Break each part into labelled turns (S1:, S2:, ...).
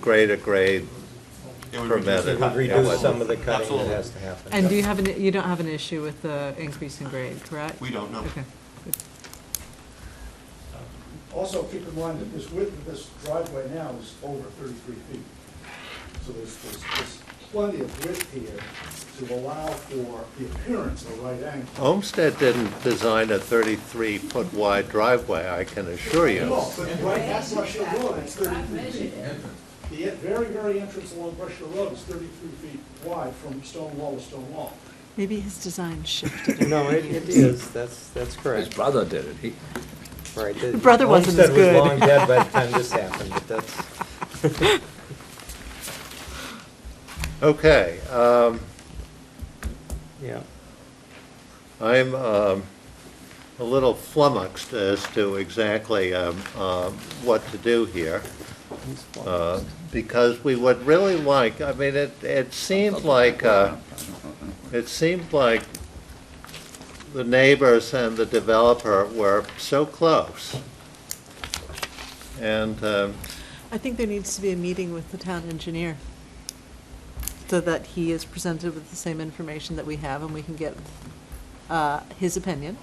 S1: grade to grade
S2: It would reduce
S1: permitted.
S2: the
S3: It
S2: cut,
S3: would
S2: yeah.
S3: reduce some of the cutting that
S2: Absolutely.
S3: has to happen.
S4: And do you have, an? you don't have an issue with the increase in grade, correct?
S2: We don't know.
S4: Okay.
S5: Also, keep in mind that this width of this driveway now is over thirty-three feet. So there's, there's, there's plenty of width here to allow for the appearance of a right angle.
S1: Homestead didn't design a 33-foot wide driveway, I can assure you.
S5: No, but right at Brush Hill Road, it's
S6: I've
S5: thirty-three
S6: measured
S5: feet.
S6: it.
S5: The en- very, very entrance along Brush Hill Road is thirty-three feet wide from stone wall to stone wall.
S4: Maybe his design shifted.
S3: No, it it is, that's, that's
S7: His
S3: correct.
S7: brother did it. He,
S3: Right, The
S4: brother wasn't as
S3: Homestead
S4: good.
S3: was long dead by the time this happened, but that's,
S1: Okay, um,
S3: yeah.
S1: I'm um, a little flummoxed as to exactly um, um, what to do here, uh, because we would really like, I mean, it it seemed like, uh, it seemed like the neighbors and the developer were so close. And um,
S4: I think there needs to be a meeting with the town engineer, so that he is presented with the same information that we have, and we can get uh, his opinion.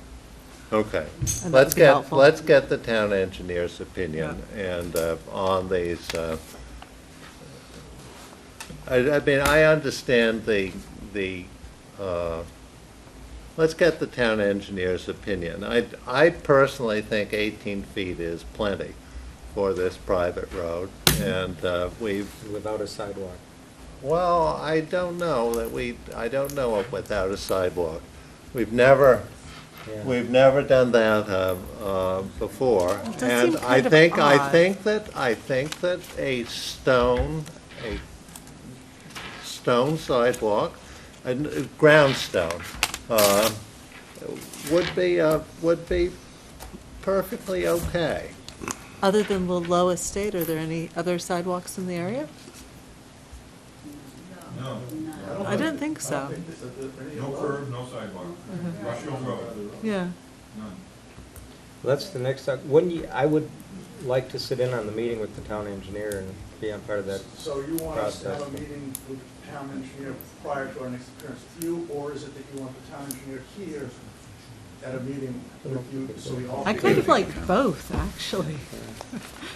S1: Okay,
S4: And that
S1: let's
S4: would be
S1: get,
S4: helpful.
S1: let's get the town engineer's opinion and uh, on these, uh, I, I mean, I understand the, the, uh, let's get the town engineer's opinion. I, I personally think 18 feet is plenty for this private road, and uh, we've
S3: Without a sidewalk.
S1: well, I don't know that we, I don't know of without a sidewalk. We've never,
S3: Yeah.
S1: we've never done that uh, uh, before.
S4: It does
S1: And
S4: seem
S1: I
S4: kind of
S1: think, I
S4: odd.
S1: think that, I think that a stone, a stone sidewalk, and uh, ground stone, uh, would be, uh, would be perfectly okay.
S4: Other than the low estate, are there any other sidewalks in the area?
S5: don't
S4: I don't think
S5: I
S4: so.
S5: don't think that- that there are any
S8: No
S5: other-
S8: curb, no sidewalk, Rush Hill Road,
S4: Yeah.
S8: none.
S3: Well, That's the next, when you, I would like to sit in on the meeting with the town engineer and be on part of that.
S5: So you want us to have a
S3: Process.
S5: meeting with the town engineer prior to our next appearance with you, or is it that you want the town engineer here at a meeting with you, so we all?
S4: I kind of like both, actually.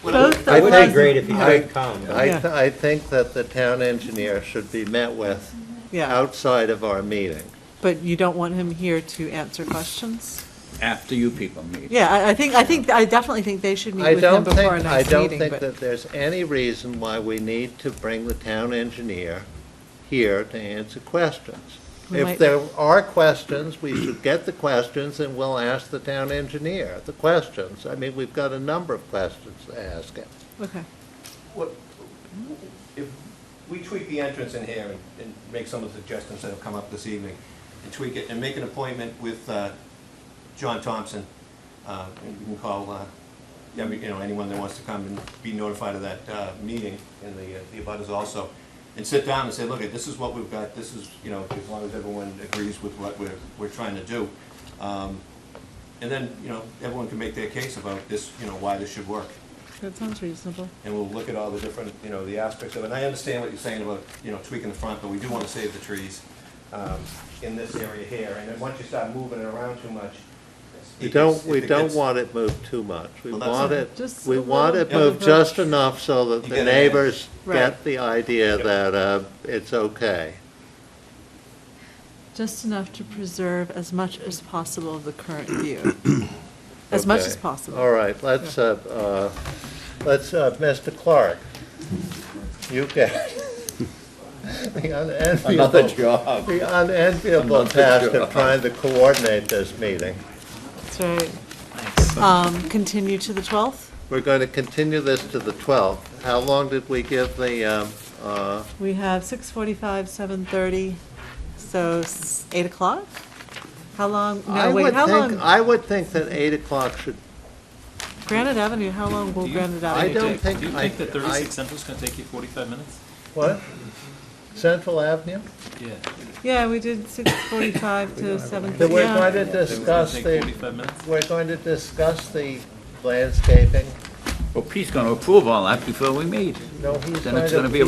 S2: When I-
S4: Both
S3: It would
S4: are-
S3: be great if you
S1: I-
S3: could come.
S1: I,
S4: Yeah.
S1: th- I think that the town engineer should be met with
S4: Yeah,
S1: outside of our meeting.
S4: but you don't want him here to answer questions?
S7: after you people meet.
S4: Yeah, I, I think, I think, I definitely think they should meet
S1: I
S4: with him
S1: don't
S4: before our
S1: think, I
S4: next
S1: don't
S4: meeting,
S1: think
S4: but,
S1: that there's any reason why we need to bring the town engineer here to answer questions.
S4: We
S1: If
S4: might-
S1: there are questions, we should get the questions and we'll ask the town engineer the questions. I mean, we've got a number of questions to ask him.
S4: okay.
S9: What, if we tweak the entrance in here and, and make some of the suggestions that have come up this evening,
S2: and tweak it and make an appointment with uh, John Thompson. Uh, and You can call, uh, every- you know, anyone that wants to come and be notified of that uh, meeting and the uh, the abutters also. And sit down and say, look, this is what we've got, this is, you know, as long as everyone agrees with what we're, we're trying to do. Um, And then, you know, everyone can make their case about this, you know, why this should work.
S4: That sounds reasonable.
S2: And we'll look at all the different, you know, the aspects of it. And I understand what you're saying about, you know, tweaking the front, but we do want to save the trees um, in this area here. And then once you start moving it around too much.
S1: We
S2: it
S1: don't,
S2: gets-
S1: we
S2: it
S1: don't
S2: gets-
S1: want it moved too much. We
S2: Well, that's
S1: want
S2: it.
S1: it,
S4: Just
S1: we
S4: a
S1: want it
S4: little
S1: moved
S4: bit of a-
S1: just enough so that
S2: You
S1: the
S2: get an edge.
S1: neighbors
S4: Right.
S1: get the idea
S2: Yep.
S1: that uh, it's okay.
S4: Just enough to preserve as much as possible of the current view, as much
S1: Okay.
S4: as possible.
S1: All right, let's, uh, uh, let's, uh, Mr. Clark, you get the
S7: Another
S1: unenviable,
S7: job.
S1: the unenviable
S7: Another
S1: task of
S7: job.
S1: trying to coordinate this meeting.
S4: That's right. Um, continue to the 12th?
S1: We're going to continue this to the 12th. How long did we give the, um, uh,
S4: We have 6:45, 7:30, so s- 8 o'clock? How long,
S1: I
S4: no, wait,
S1: would
S4: how
S1: think-
S4: long,
S1: I would think that 8 o'clock should,
S4: Granite Avenue, how long will Granite
S1: I
S4: Avenue
S1: don't
S4: take?
S1: think.
S10: Do you
S1: I-
S10: think that
S1: I-
S10: 36 Central's going to take you 45 minutes?
S1: What? Central Avenue?
S10: Yeah.
S4: Yeah, we did 6:45 to 7:30.
S1: That we're
S4: Yeah.
S1: going to
S10: It's
S1: discuss
S10: going to take
S1: the,
S10: 45 minutes?
S1: we're going to discuss the landscaping
S7: Well, Pete's gonna approve all that before we meet.
S1: No, he's
S7: Then
S1: right
S7: it's
S1: up
S7: gonna be
S1: here.